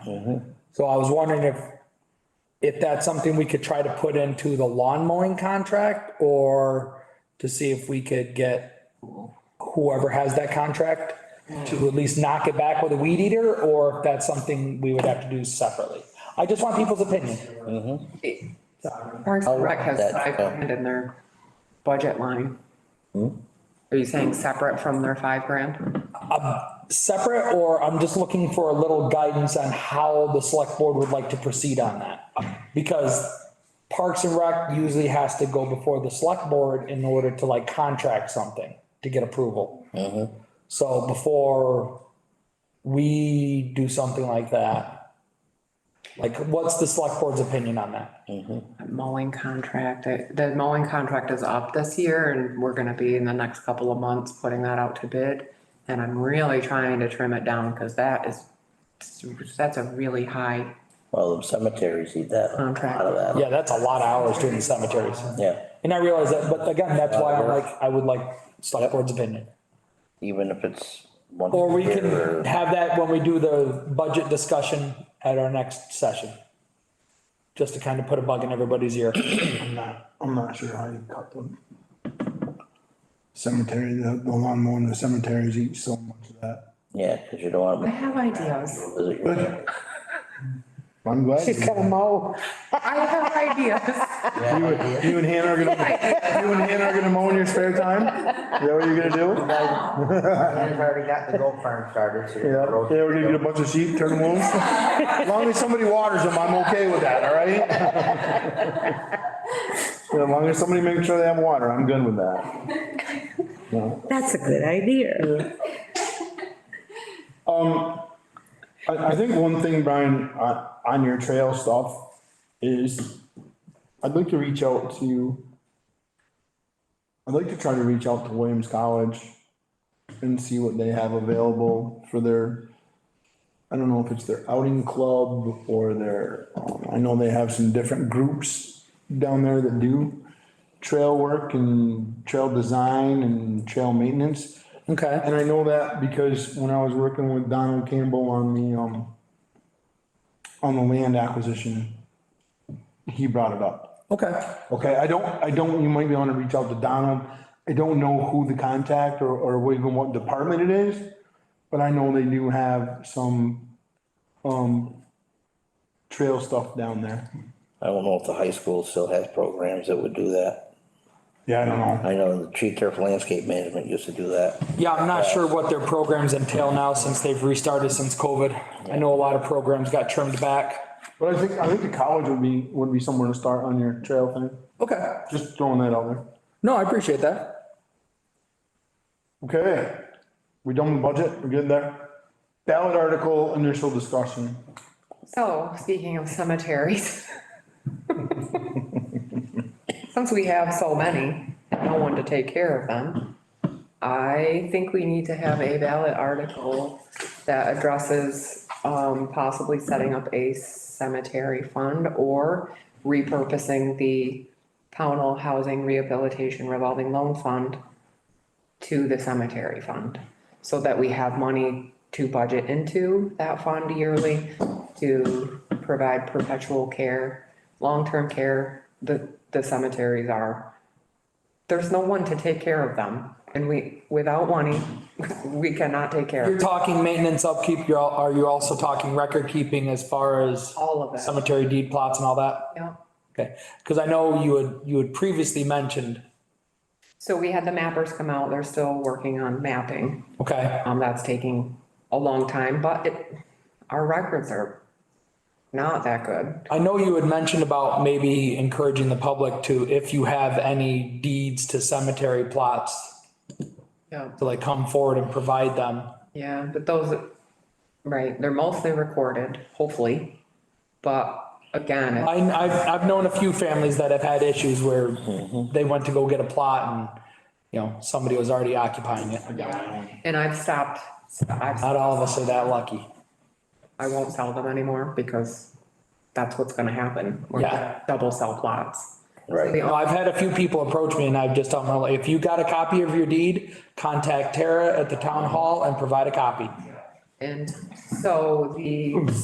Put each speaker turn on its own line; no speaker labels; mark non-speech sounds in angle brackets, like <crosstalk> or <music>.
So I was wondering if, if that's something we could try to put into the lawn mowing contract or to see if we could get whoever has that contract to at least knock it back with a weed eater, or if that's something we would have to do separately. I just want people's opinion.
Parks and Rec has
that,
five
yeah.
grand in their budget line. Are you saying separate from their five grand?
Separate, or I'm just looking for a little guidance on how the select board would like to proceed on that. Because Parks and Rec usually has to go before the select board in order to like contract something to get approval. So before we do something like that, like what's the select board's opinion on that?
That Mowing contract, I- the mowing contract is up this year and we're gonna be in the next couple of months putting that out to bid. And I'm really trying to trim it down because that is, that's a really high
Well, the cemeteries eat that, a lot of that,
Yeah, that's a lot of hours doing the cemeteries.
yeah.
And I realize that, but again, that's why I'm like, I would like select board's opinion.
Even if it's once
Or we
a
can
year or
have that when we do the budget discussion at our next session. Just to kind of put a bug in everybody's ear.
I'm not, I'm not sure how you cut them. Cemetery, the, the lawn mowing, the cemeteries eat so much of that.
Yeah, cause you don't
I
want
have ideas.
to visit your family.
I'm glad.
She's
You
got a mow.
I have ideas.
and you and Hannah are gonna, you and Hannah are gonna mow in your spare time? Is that what you're gonna
I've already got the goat farm started, so
do? Yeah,
you're.
yeah, we're gonna get a bunch of sheep, turn them loose. As long as somebody waters them, I'm okay with that, all right? Yeah, As long as somebody makes sure they have water, I'm good with that.
That's a good idea.
Um, I, I think one thing, Brian, on, on your trail stuff is I'd like to reach out to, I'd like to try to reach out to Williams College and see what they have available for their, I don't know if it's their outing club or their, um, I know they have some different groups down there that do trail work and trail design and trail maintenance.
Okay.
And I know that because when I was working with Donald Campbell on the, um, on the land acquisition, he brought it up.
Okay.
Okay, I don't, I don't, you might be wanna reach out to Donald. I don't know who the contact or, or what- even what department it is, but I know they do have some, um, trail stuff down there.
I don't know if the high school still has programs that would do that.
Yeah, I don't know.
I know the tree turf landscape management used to do that.
Yeah, I'm not sure what their programs entail now since they've restarted since COVID. I know a lot of programs got trimmed back.
But I think, I think the college would be, would be somewhere to start on your trail thing.
Okay.
Just throwing that out there.
No, I appreciate that.
Okay, we done with budget, we're good there. Ballot article, initial discussion.
So, Oh, speaking of cemeteries. Since we have so many, and no one to take care of them, I think we need to have a ballot article that addresses, um, possibly setting up a cemetery fund or repurposing the Pownell Housing Rehabilitation Revolving Loan Fund to the cemetery fund, so that we have money to budget into that fund yearly to provide perpetual care, long-term care, the, the cemeteries are. There's no one to take care of them, and we, without money, <laughs> we cannot take care
You're
of
talking maintenance upkeep, you're, al- are you also talking record keeping as far as
all of it,
cemetery deed plots and all that?
yeah.
Okay, because I know you had, you had previously mentioned,
So we had the mappers come out, they're still working on mapping,
okay,
um, that's taking a long time, but it, our records are not that good.
I know you had mentioned about maybe encouraging the public to, if you have any deeds to cemetery plots,
Yeah.
to like come forward and provide them.
Yeah, but those, right, they're mostly recorded, hopefully, but again, it's-
I, I've, I've known a few families that have had issues where they went to go get a plot and, you know, somebody was already occupying it.
and I've stopped, I've,
Not all of us are that lucky.
I won't sell them anymore because that's what's gonna happen. We're
Yeah.
gonna double sell plots.
Right.
You know, I've had a few people approach me and I've just told them, like, if you got a copy of your deed, contact Tara at the town hall and provide a copy.
And so the